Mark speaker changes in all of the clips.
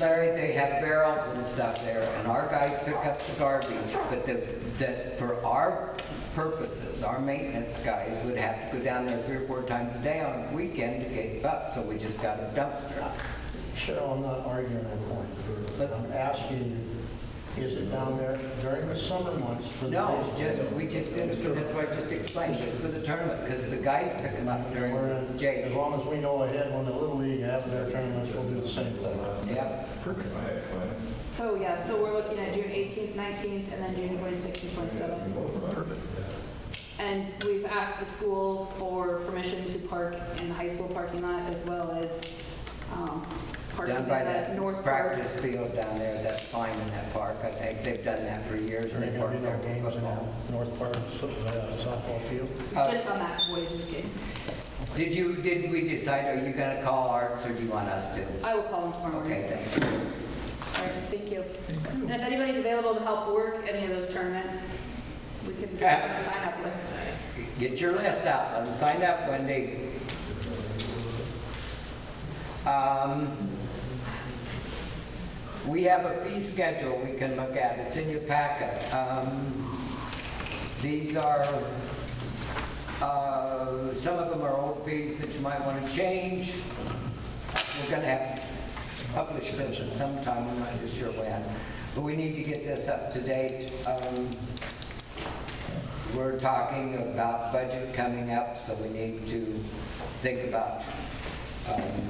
Speaker 1: Larry, they have barrels and stuff there, and our guys pick up the garbage, but the, that, for our purposes, our maintenance guys would have to go down there three or four times a day on a weekend to get it up, so we just got a dumpster.
Speaker 2: Cheryl, I'm not arguing that point. But I'm asking you, is it down there during the summer months for the...
Speaker 1: No,
Speaker 2: baseball
Speaker 1: just,
Speaker 2: game?
Speaker 1: we just did it, for- that's why I just explained, just for the tournament, because the guys pick them up during
Speaker 2: We're in- As
Speaker 1: Jake.
Speaker 2: long as we know ahead when the Little League have their tournaments, we'll do the same thing.
Speaker 1: Yep.
Speaker 3: So, yeah, so we're looking at June 18th, 19th, and then June 26th and 27th. And we've asked the school for permission to park in the high school parking lot as well as um, parking
Speaker 1: Down
Speaker 3: at
Speaker 1: by
Speaker 3: that
Speaker 1: that
Speaker 3: north park.
Speaker 1: practice field down there, that's fine in that park, I think they've done that for years.
Speaker 2: Is there
Speaker 1: and they
Speaker 2: going to
Speaker 1: park
Speaker 2: be no
Speaker 1: there.
Speaker 2: games in that north part of so- uh, softball field?
Speaker 1: Uh,
Speaker 3: Just on that boys' weekend.
Speaker 1: Did you, did we decide, are you gonna call Arts or do you want us to?
Speaker 3: I will call them tomorrow morning.
Speaker 1: Okay, thank you.
Speaker 3: All right, thank you. And if anybody's available to help work any of those tournaments, we can get
Speaker 1: Yeah.
Speaker 3: on a sign-up list.
Speaker 1: Get your list out, let them sign up, Wendy. Um, We have a fee schedule we can look at, it's in your packet. Um, These are, uh, some of them are old fees that you might want to change. We're going to have to publish this at some time, I'm not just sure when, but we need to get this up to date. Um, we're talking about budget coming up, so we need to think about um,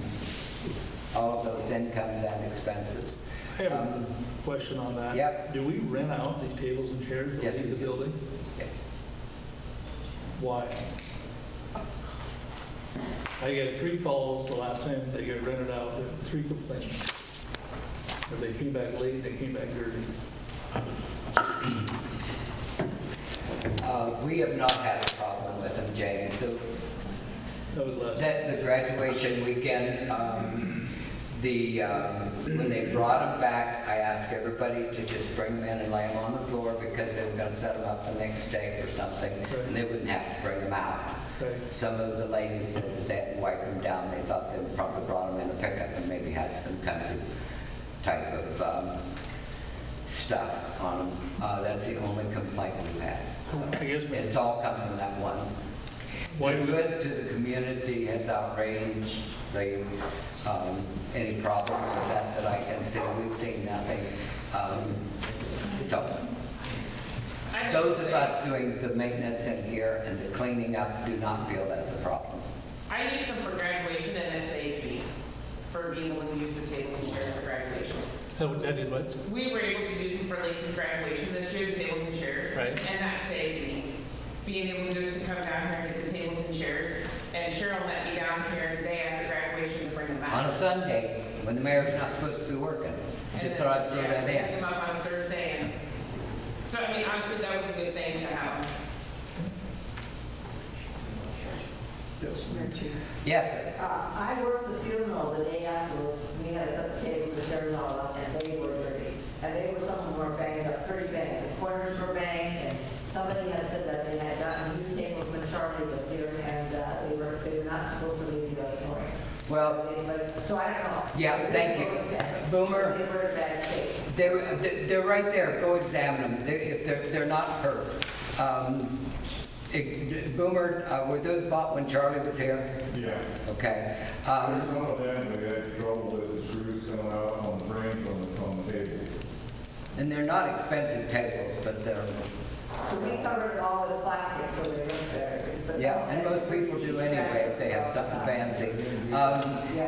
Speaker 1: all of those incomes and expenses.
Speaker 4: I have
Speaker 1: Um,
Speaker 4: a question on that.
Speaker 1: Yep.
Speaker 4: Do we rent out the tables and chairs that
Speaker 1: Yes,
Speaker 4: leave
Speaker 1: we
Speaker 4: the
Speaker 1: do.
Speaker 4: building?
Speaker 1: Yes.
Speaker 4: Why? I got three calls the last time they got rented out, there were three complaints. That They came back late, they came back dirty.
Speaker 1: Uh, We have not had a problem with them, James. The-
Speaker 4: That was last.
Speaker 1: That the graduation weekend, um, the, um, when they brought them back, I asked everybody to just bring them in and lay them on the floor because they were gonna set them up the next day for something, and they wouldn't have to bring them out.
Speaker 4: Right.
Speaker 1: Some of the ladies said that they had wiped them down, they thought they probably brought them in a pickup and maybe had some country type of um, stuff on them. Uh, That's the only complaint we've had. so.
Speaker 4: I guess we-
Speaker 1: It's all come from that one.
Speaker 4: Why
Speaker 1: The
Speaker 4: do-
Speaker 1: good to the community has outraged the, um, any problems with that that I can see. We've seen nothing. Um, So, those of us doing the maintenance in here and the cleaning up do not feel that's a problem.
Speaker 5: I used them for graduation and SAP, for being able to use the tables and chairs for graduation.
Speaker 4: That that did what?
Speaker 5: We were able to use them for Lisa's graduation this year, the tables and chairs.
Speaker 4: Right.
Speaker 5: And that saved me, being able just to come down here and get the tables and chairs. And Cheryl let me down here the day after graduation to bring them
Speaker 1: On a
Speaker 5: back.
Speaker 1: Sunday, when the mayor's not supposed to be working,
Speaker 5: And
Speaker 1: just
Speaker 5: then,
Speaker 1: thought I'd throw
Speaker 5: yeah,
Speaker 1: that
Speaker 5: Pick
Speaker 1: in.
Speaker 5: them up on Thursday and, so I mean, honestly, that was a good thing to have.
Speaker 6: Madam Chair.
Speaker 1: Yes, sir.
Speaker 6: Uh, I worked the funeral the day after, we had us at the table, the funeral, up, and they were dirty. And they were, some of them were banged up, pretty banged, the corners were banged, and somebody had said that they had gotten new tables when Charlie was here, and uh, they were, they were not supposed to leave the auditorium.
Speaker 1: Well,
Speaker 6: But- So I don't know.
Speaker 1: Yeah, thank you. Boomer.
Speaker 6: They were in bad shape.
Speaker 1: They're, they're right there, go examine them, they're, if they're, they're not hurt. Um, it- Boomer, uh, were those bought when Charlie was here?
Speaker 7: Yeah,
Speaker 1: Okay.
Speaker 7: there's
Speaker 1: Um,
Speaker 7: some of them that had trouble with the screws coming out on the frames on the, on the tables.
Speaker 1: And they're not expensive tables, but they're,
Speaker 6: So we covered all of the plastic, so they weren't there. But-
Speaker 1: yeah, and most people do anyway if they have something fancy. Um,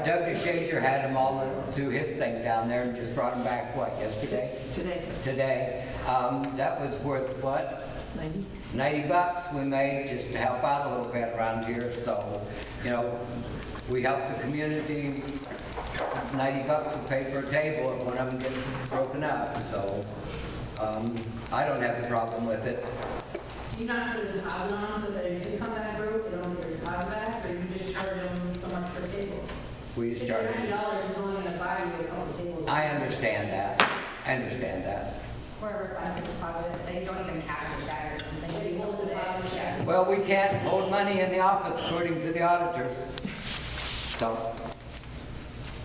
Speaker 1: Doug DeShazer had them all do his thing down there and just brought them back, what, yesterday?
Speaker 6: Today,
Speaker 1: Today. Um, That was worth what,
Speaker 6: 90.
Speaker 1: 90 bucks we made just to help out a little bit around here, so, you know, we help the community, 90 bucks will pay for a table if one of them gets broken up, so, um, I don't have a problem with it.
Speaker 8: Do you not put a deposit on so that if they come back broke, they don't get a deposit back, or you just charge them so much per table?
Speaker 1: We just charge
Speaker 8: Ninety
Speaker 1: them.
Speaker 8: dollars is only gonna buy you a couple tables.
Speaker 1: I understand that, I understand that.
Speaker 9: wherever I can deposit, they don't even cash the check or something.
Speaker 8: They hold the deposit check.
Speaker 1: Well, we can't hold money in the office according to the auditors, so,